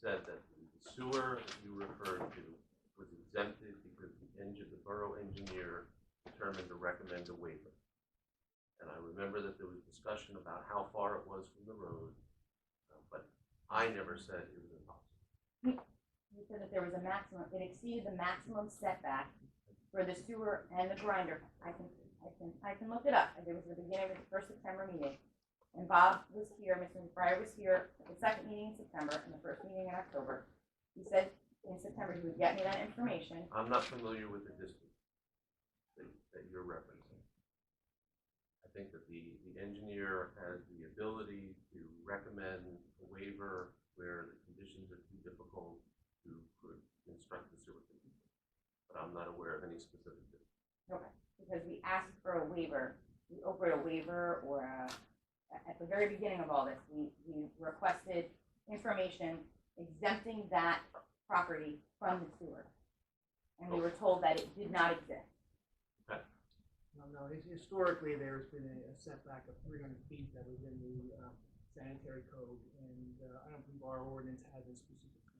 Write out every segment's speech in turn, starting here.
said that sewer you referred to was exempted because the engine, the borough engineer determined to recommend a waiver. And I remember that there was discussion about how far it was from the road, uh, but I never said it was impossible. You said that there was a maximum, it exceeded the maximum setback for the sewer and the grinder. I can, I can, I can look it up. It was the beginning of the first September meeting. And Bob was here, Mr. McBride was here, at the second meeting in September and the first meeting in October. He said in September he would get me that information. I'm not familiar with the district that, that you're referencing. I think that the, the engineer has the ability to recommend a waiver where the conditions are too difficult to could construct the sewer. system. But I'm not aware of any specific. district. because we asked for a waiver, we offered a waiver or a, at the very beginning of all this, we, we requested information exempting that property from the sewer. And we were told that it did not exist. No, no, his- historically, there's been a a setback of three hundred feet that was in the uh, sanitary code, and uh, I don't believe our ordinance has a specific.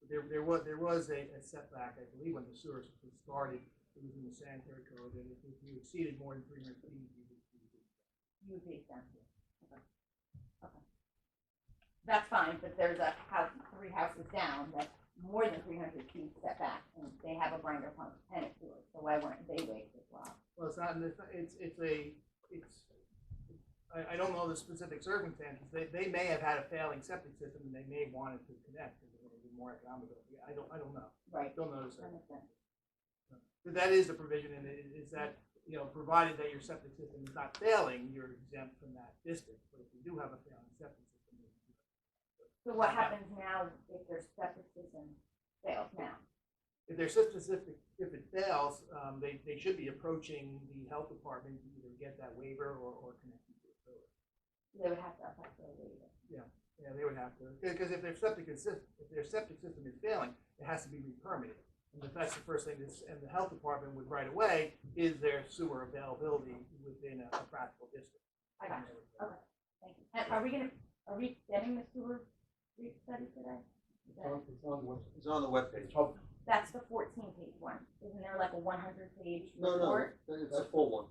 But there, there was, there was a a setback, I believe, when the sewer was started, it was in the sanitary code, and if if you exceeded more than three hundred feet, you would. you would- You would be exempted. Okay. Okay. That's fine, but there's a house, three houses down that's more than three hundred feet setback and they have a grinder pump and a sewer, so why weren't they waived as well? Well, it's not, in the- it's, it's a, it's, I, I don't know the specific circumstances, they, they may have had a failing septic system, and they may have wanted to connect, because it would be more economical, I don't, I don't know, I Right, don't know the circumstances. that makes sense. But That is the provision, and it is that, you know, provided that your septic system is not failing, you're exempt from that district. But if you do have a failing septic system, you- So what happens now if their septic system fails now? if their septic system, if it fails, um, they, they should be approaching the health department to either get that waiver or, or connect you to the sewer. They would have to apply for a waiver. Yeah, they would have to, because if their septic is, if their septic system is failing, it has to be re-permitted. And if that's the first thing that's, and the health department would right away, is there sewer availability within a practical district? I got you. Okay, thank you. And are we gonna, are we getting the sewer re-study today? Is It's that- on, it's on the web, it's on the webpage. That's the fourteen page one. Isn't there like a one hundred page No, no, report? it's a full one,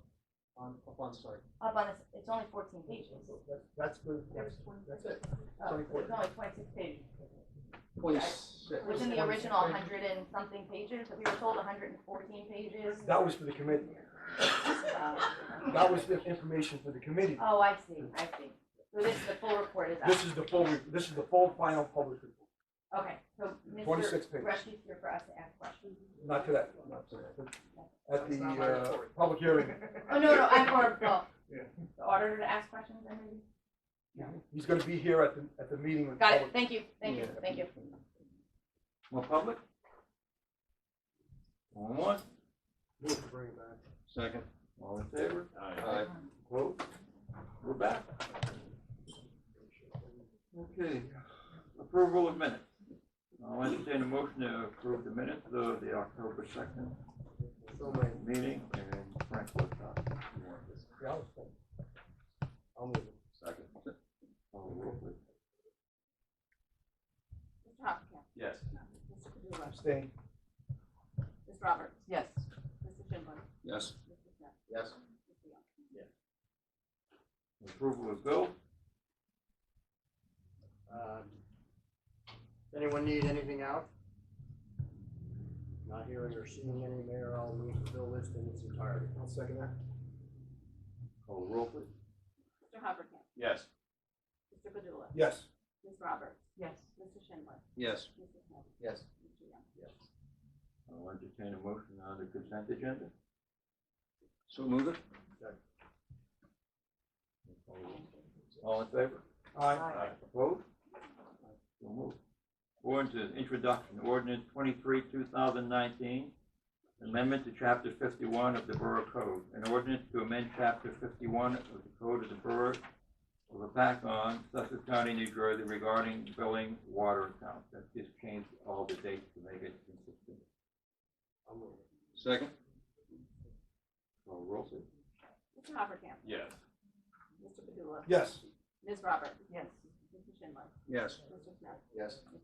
on, up on site. Up on this, it's only fourteen pages. That's good, that's, that's it. Oh, so 24. it's only twenty-six pages. Twenty-six. Which in the original hundred and something pages, we were told hundred and fourteen pages. That was for the committee. Uh, That was the information for the committee. Oh, I see, I see. So this is the full report is up. This is the full, re- this is the full final published report, Okay, so Mr. 26 pages. Rush is here for us to ask questions. not today, not today. At the, uh, public hearing, Oh, no, no, I'm for, well, Yeah. the auditor to ask questions, I mean. he's gonna be here at the, at the meeting with Got public. it, thank you, thank you, Yeah. thank you. More public? One more? We'll bring it back. Second. All in favor? Aye. Vote. We're back. Okay, approval of minutes. I'll entertain a motion to approve the minutes of the October second So many. meeting and Frank Woodcock. Yeah, I'll stay. I'll move it. Second. All roll, please. Mr. Hoppercamp, Yes. Mr. Padula, Abstain. Ms. Roberts, Yes. Mr. Schindler, Yes. Mr. Smith, Yes. Mr. Young. Approval of bill? Um, Does anyone need anything out? Not hearing or seeing any, Mayor, I'll move the bill list in its entirety. I'll second that. Call roll, please. Mr. Hoppercamp, Yes. Mr. Padula, Yes. Ms. Roberts, Yes. Mr. Schindler, Yes. Mr. Smith, Yes. Mr. Young. I'll entertain a motion on the consent agenda. So move it. All in favor? Aye. Vote. So moved. Ordinance, introduction, ordinance twenty-three, two thousand nineteen, amendment to chapter fifty-one of the Borough Code. An ordinance to amend chapter fifty-one of the Code of the Borough of Apacon, Sussex County, New Jersey regarding billing water accounts. That just changed all the dates to make it consistent. I'll move it. Second? Call roll, please. Mr. Hoppercamp, Yes. Mr. Padula, Yes. Ms. Roberts, Yes. Mr. Schindler, Yes. Mr. Smith. Yes.